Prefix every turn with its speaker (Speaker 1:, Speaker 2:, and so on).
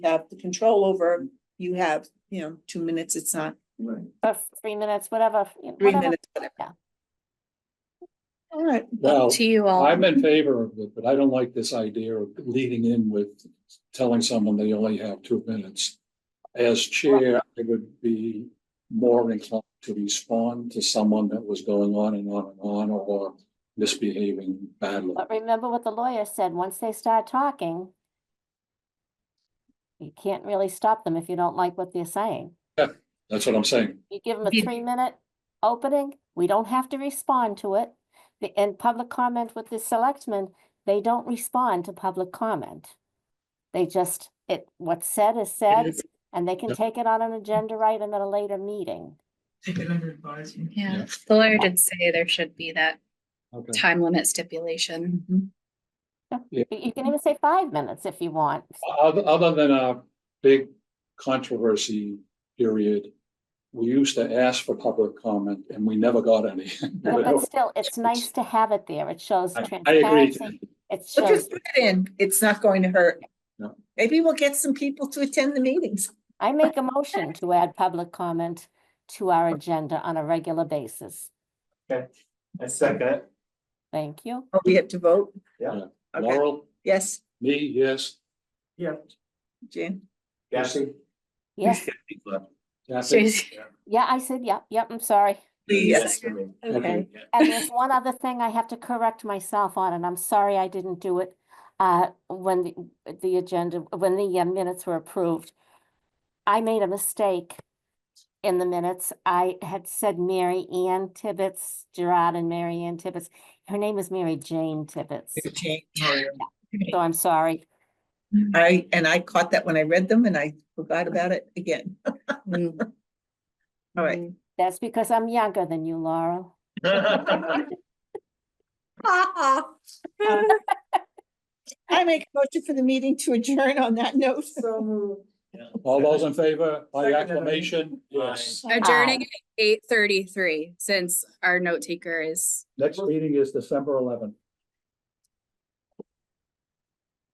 Speaker 1: have the control over, you have, you know, two minutes, it's not
Speaker 2: Right.
Speaker 3: or three minutes, whatever. you know,
Speaker 1: three
Speaker 3: whatever.
Speaker 1: minutes, whatever.
Speaker 3: Yeah.
Speaker 1: All right,
Speaker 4: Now,
Speaker 5: to you all.
Speaker 4: I'm in favor of it, but I don't like this idea of leading in with telling someone they only have two minutes. As chair, I would be more inclined to respond to someone that was going on and on and on or misbehaving badly.
Speaker 3: But remember what the lawyer said, once they start talking, you can't really stop them if you don't like what they're saying.
Speaker 4: That's what I'm saying.
Speaker 3: You give them a
Speaker 5: Yeah.
Speaker 3: three-minute opening, we don't have to respond to it. The, and public comment with the selectmen, they don't respond to public comment. They just, it, what's said is said,
Speaker 5: is.
Speaker 3: and they can
Speaker 4: Yep.
Speaker 3: take it on an agenda item at a later meeting.
Speaker 2: Take it under advisement.
Speaker 5: Yeah, the lawyer did say there should be that
Speaker 4: Okay.
Speaker 5: time limit stipulation.
Speaker 1: Mm-hmm.
Speaker 3: You you can even say five minutes if you want.
Speaker 4: Other, other than a big controversy period, we used to ask for public comment and we never got any.
Speaker 3: No, But still,
Speaker 4: it's-
Speaker 3: it's nice to have it there. It shows
Speaker 4: I I agree.
Speaker 3: transparency. It
Speaker 1: so
Speaker 3: shows,
Speaker 1: just put it in, it's not going to hurt.
Speaker 4: No.
Speaker 1: Maybe we'll get some people to attend the meetings.
Speaker 3: I make a motion to add public comment to our agenda on a regular basis.
Speaker 2: I second it.
Speaker 3: Thank you.
Speaker 1: Oh, we have to vote?
Speaker 2: Yeah.
Speaker 1: Okay,
Speaker 4: Laurel,
Speaker 1: yes,
Speaker 4: me, yes.
Speaker 2: Yeah.
Speaker 1: Jan,
Speaker 4: Cassie?
Speaker 3: Yes,
Speaker 4: Kathy?
Speaker 5: She's-
Speaker 3: yeah, I said, yep, yep, I'm sorry.
Speaker 1: yes,
Speaker 4: Okay.
Speaker 1: okay,
Speaker 3: And there's one other thing I have to correct myself on, and I'm sorry I didn't do it. Uh, when the, the agenda, when the uh, minutes were approved. I made a mistake in the minutes. I had said Mary Ann Tibbetts, Gerard and Mary Ann Tibbetts. Her name is Mary Jane Tibbetts,
Speaker 1: Jane.
Speaker 3: so I'm sorry.
Speaker 1: I, and I caught that when I read them and I forgot about it again.
Speaker 5: Mm.
Speaker 1: All right.
Speaker 3: That's because I'm younger than you, Laurel.
Speaker 1: I make a motion for the meeting to adjourn on that note.
Speaker 2: So moved.
Speaker 4: All those in favor by
Speaker 2: Second.
Speaker 4: acclamation? Yes.
Speaker 5: Adjourning at eight thirty-three, since our note taker is
Speaker 4: Next meeting is December eleventh.